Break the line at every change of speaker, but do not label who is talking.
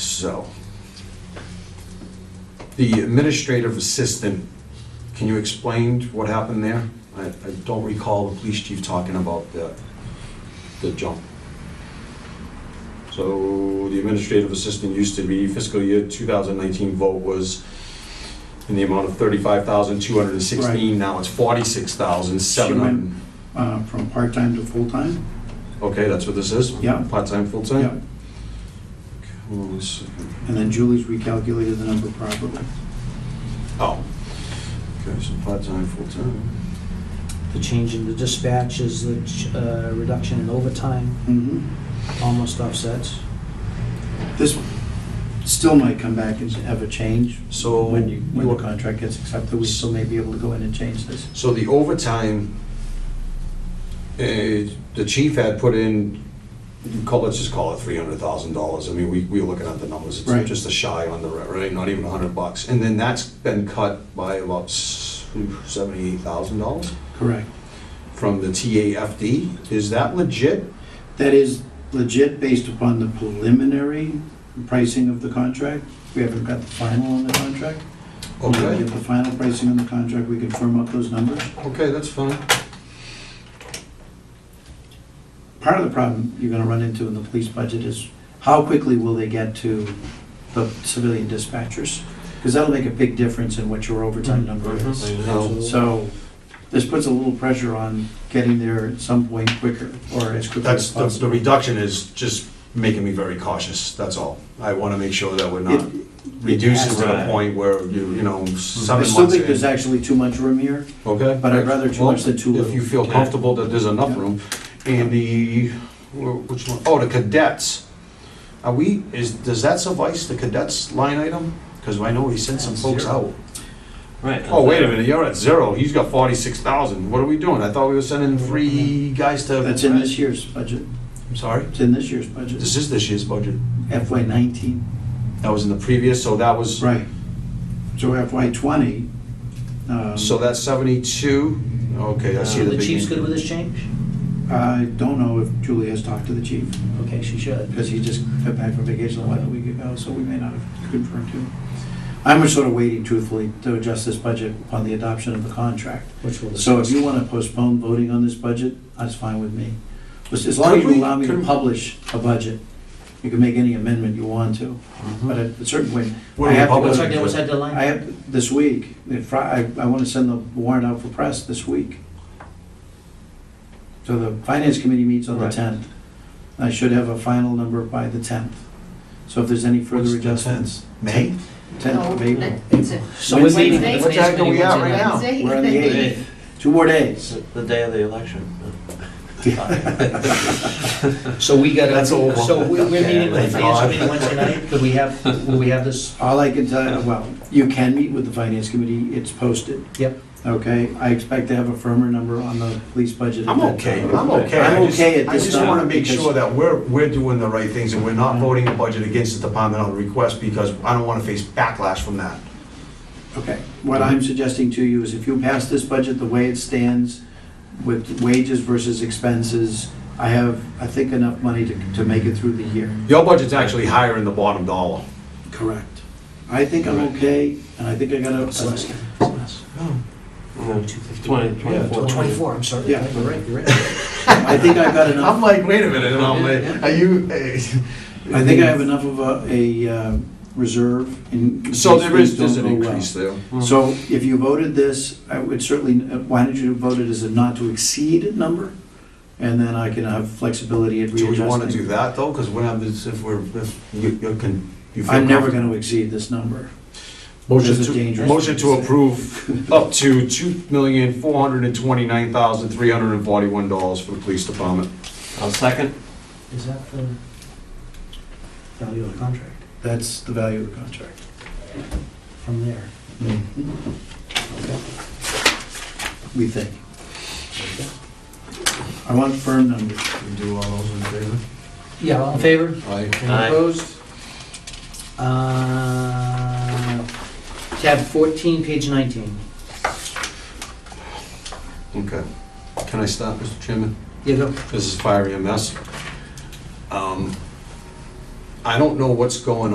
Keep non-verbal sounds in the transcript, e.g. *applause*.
So, the administrative assistant, can you explain what happened there? I, I don't recall the police chief talking about the, the jump. So, the administrative assistant used to be fiscal year 2019 vote was in the amount of 35,216, now it's 46,700.
uh, from part-time to full-time.
Okay, that's what this is?
Yeah.
Part-time, full-time?
Yeah.
Okay, hold on a second.
And then Julie's recalculated the number properly.
Oh. Okay, so part-time, full-time.
The change in the dispatch is the uh, reduction in overtime,
Mhm.
almost offsets.
This still might come back and have a change
So
when you, when the
you-
contract gets accepted, we still may be able to go in and change this.
So the overtime, eh, the chief had put in, you call- let's just call it three hundred thousand dollars. I mean, we, we were looking at the numbers,
Right.
it's just a shy on the, re- right, not even a hundred bucks. And then that's been cut by about seventy-eight thousand dollars
Correct.
from the TAFD. Is that legit?
That is legit based upon the preliminary pricing of the contract. We haven't got the final on the contract. When we
Okay,
get the final pricing on the contract, we can firm up those numbers.
okay, that's fine.
Part of the problem you're gonna run into in the police budget is how quickly will they get to the civilian dispatchers? Because that'll make a big difference in what your overtime
Mm-hmm.
number is.
Mm-hmm.
No.
So this puts a little pressure on getting there at some point quicker or as quickly
That's,
as
the- the
possible.
reduction is just making me very cautious, that's all. I want to make sure that we're not
It-
reducing to the
Right.
point where, you you know,
I
seven
still
months
think there's
in.
actually too much room here.
Okay?
but I'd rather too
Well,
much than too
If
little.
you feel comfortable that there's enough
Yeah.
room. And the, wh- which one? Oh, the cadets. Are we, is, does that suffice, the cadets line item? Because I know he sent some folks out.
Right.
Oh, wait a minute, you're at zero. He's got forty-six thousand. What are we doing? I thought we were sending three guys to.
That's in this year's budget.
I'm sorry?
It's in this year's budget,
This is this year's budget.
FY nineteen.
That was in the previous, so that was,
Right. So FY twenty. um,
so that's 72? Okay, I see
Uh,
the
Uh, The
big...
chief's good with this change?
I don't know if Julie has talked to the chief,
Okay, she should.
because he just got back from vacation a while week ago, so we may not have confirmed him. I'm just sort of waiting truthfully to adjust this budget upon the adoption of the contract.
Which will
So if
discuss.
you want to postpone voting on this budget, that's fine with me. As as long as you
Could we-
allow me to
could-
publish a budget, you can make any amendment you want to.
Mm-hmm.
But at a certain point, I have to
What's
go,
our,
uh,
what's our
I
deadline?
have, this week, the Fri- I, I want to send the warrant out for press this week. So the finance committee meets on the
Right.
10th. I should have a final number by the 10th. So if there's any
What's
further
the
adjustments.
May?
10th of April.
So we're
Wednesday.
waiting for the
What the heck
finance
are we
committee
at
what's
right
our
now?
deadline?
We're on the
Hey,
Two more days.
It's the day of the election.
So we got,
That's all.
so we- we're meeting with the
Okay.
finance committee Wednesday night? Could we have, will we have this?
All I can tell, well, you can meet with the finance committee, it's posted.
Yep.
Okay, I expect to have a firmer number on the police budget. at
I'm
that
okay,
time.
I'm okay.
I'm
I just-
okay at
I
this
just
time
want to make
because-
sure that we're, we're doing the right things and we're not
Mhm.
voting the budget against the department on the request because I don't want to face backlash from that.
Okay, what I'm suggesting to you is if you pass this budget the way it stands with wages versus expenses, I have, I think, enough money to, to make it through the year.
Your budget's actually higher in the bottom dollar.
Correct. I think I'm okay, and I think I got a, Oh.
Twenty,
Well,
twenty-four.
Twenty-four, I'm sorry.
Yeah.
You're right, you're right.
I think I've got enough.
I'm *laughs* like, wait a minute, and I'm like, are you... eh,
I think I have enough of a, a uh, reserve in. in
So
case
there is,
things
there's an
don't go well.
increase there.
So if you voted this, I would certainly, uh, why did you vote it as a not to exceed number? And then I can have flexibility at
Do we want to
readjusting.
do that, though? Because what happens if we're, if you you can... you feel
I'm never
comfortable-
gonna exceed this number.
Motion
There's a
to,
dangerous-
motion to approve up to two million, four hundred and twenty-nine thousand, three hundred and forty-one dollars for the police department.
I'll second.
Is that the value of the contract
That's the value of the contract.
from there?
Hmm.
We think. I want firm numbers.
do all those in favor?
Yeah, all in favor?
Aye.
Any
Aye.
opposed? Uh, Tab 14, page 19.
Okay. Can I stop, Mr. Chairman?
Yeah, go.
This is fire EMS. Um, I don't know what's going on.